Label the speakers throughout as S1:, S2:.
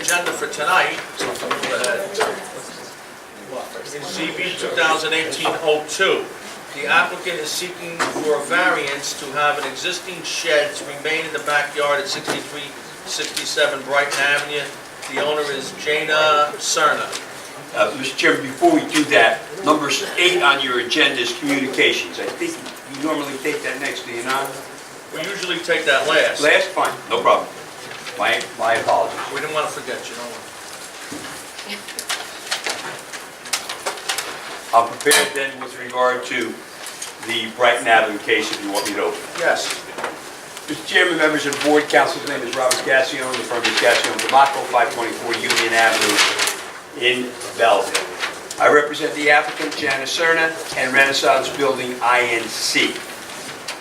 S1: Agenda for tonight uh, is ZB 2018-02. The applicant is seeking for a variance to have an existing shed to remain in the backyard at 6367 Brighton Avenue. The owner is Jana Cerna.
S2: Uh, Mr. Chairman, before we do that, number eight on your agenda is communications. I think you normally take that next, do you not?
S1: We usually take that last.
S2: Last, fine, no problem. My, my apologies.
S1: We didn't want to forget you, don't worry.
S2: I'm prepared then with regard to the Brighton Avenue case, if you want me to open.
S1: Yes.
S2: Mr. Chairman, members of the board, council's name is Robert Gassion, the firm is Gassion Demaco, 524 Union Avenue in Belleville. I represent the applicant, Jana Serna, and Renaissance Building INC.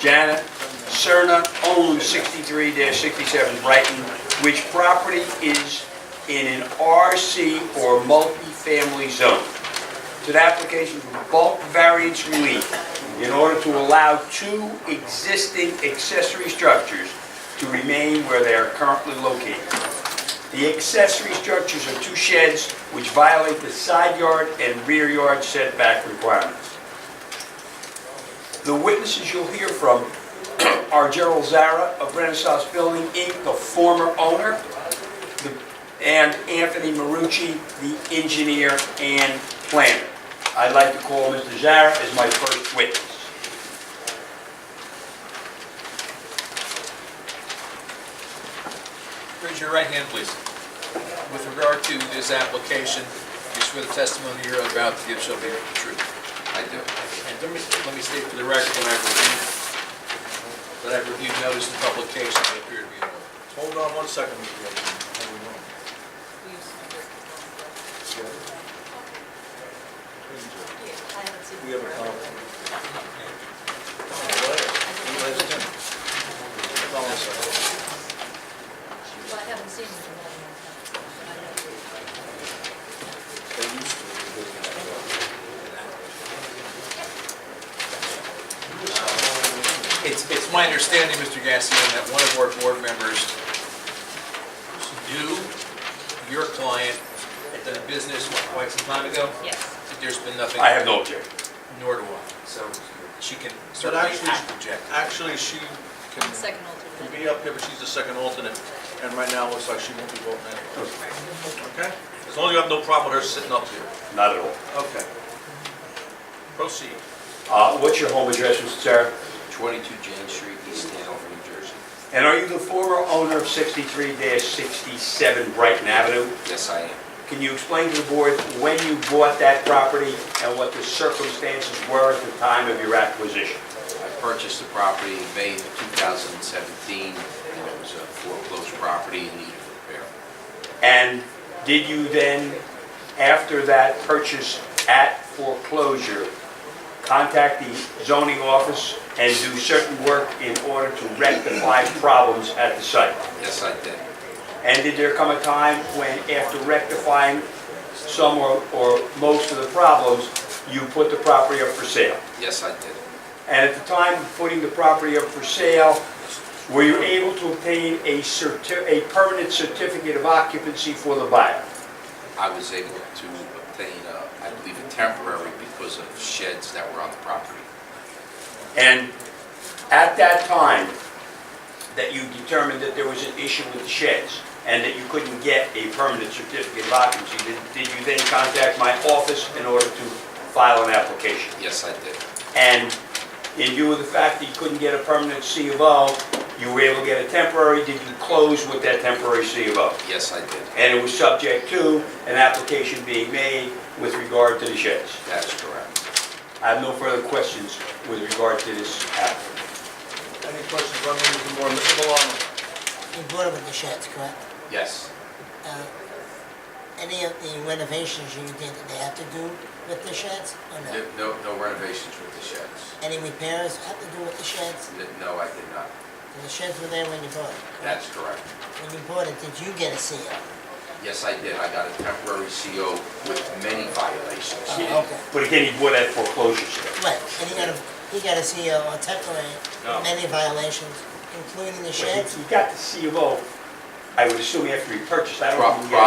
S2: Jana Serna owns 63-67 Brighton, which property is in an RC or multifamily zone to the application for bulk variance relief in order to allow two existing accessory structures to remain where they are currently located. The accessory structures are two sheds which violate the side yard and rear yard setback requirements. The witnesses you'll hear from are Gerald Zara of Renaissance Building, Inc., the former owner, the- and Anthony Marucci, the engineer and planner. I'd like to call Mr. Zara as my first witness.
S3: Raise your right hand, please. With regard to this application, you swear the testimony you're about to give shall be the truth. I do. And let me, let me state for the record that I've reviewed, that I've reviewed notice and publication that appear to be in order.
S1: Hold on one second, Mr. Wilson.
S4: We used to do it. Yeah, I haven't seen.
S1: We have a
S4: it
S1: comment.
S4: forever.
S1: Hold on one second.
S4: Well, I haven't seen it in a long, long time. but I know.
S3: It's, it's my understanding, Mr. Gassion, that one of our board members knew your client had done business quite some time ago,
S4: Yes.
S3: that there's been nothing.
S2: I have no objection.
S3: Nor do I. So she can certainly
S1: actually-
S3: act object.
S1: Actually, she can
S4: The second
S1: can
S4: alternate.
S1: be up here, but she's the second alternate, and right now, it looks like she won't be voting anyway. Okay? As long as you have no problem with her sitting up here.
S2: Not at all.
S1: Okay. Proceed.
S2: Uh, What's your home address, Mr. Zara?
S5: 22 James Street, East Hanover, New Jersey.
S2: And are you the former owner of 63-67 Brighton Avenue?
S5: Yes, I am.
S2: Can you explain to the board when you bought that property and what the circumstances were at the time of your acquisition?
S5: I purchased the property in May of 2017, and it was a foreclosed property in need of repair.
S2: And did you then, after that purchase at foreclosure, contact the zoning office and do certain work in order to rectify problems at the site?
S5: Yes, I did.
S2: And did there come a time when, after rectifying some or or most of the problems, you put the property up for sale?
S5: Yes, I did.
S2: And at the time of putting the property up for sale, were you able to obtain a certi, a permanent certificate of occupancy for the buyer?
S5: I was able to obtain, uh, I believe, a temporary because of sheds that were on the property.
S2: And at that time, that you determined that there was an issue with the sheds and that you couldn't get a permanent certificate of occupancy, did, did you then contact my office in order to file an application?
S5: Yes, I did.
S2: And in view of the fact that you couldn't get a permanent C of O, you were able to get a temporary, did you close with that temporary C of O?
S5: Yes, I did.
S2: And it was subject to an application being made with regard to the sheds.
S5: That is correct.
S2: I have no further questions with regard to this application.
S1: Any questions, one minute or more, Mr. Valano?
S6: You bought them in the sheds, correct?
S5: Yes.
S6: Uh, Any of the renovations you did, did they have to do with the sheds or no?
S5: No no renovations with the sheds.
S6: Any repairs have to do with the sheds?
S5: N- No, I did not.
S6: The sheds were there when you bought it?
S5: That's correct.
S6: When you bought it, did you get a E CO?
S5: Yes, I did. I got a temporary CO with many violations.
S6: Oh, okay.
S2: But again, you bought that foreclosure sale.
S6: Right, and he got a, he got a CO on temporary,
S2: No.
S6: many violations, including the
S2: But
S6: sheds?
S2: You you got the C of O, I would assume after you purchased, I don't
S5: Pro-
S2: think you
S5: pro-
S2: got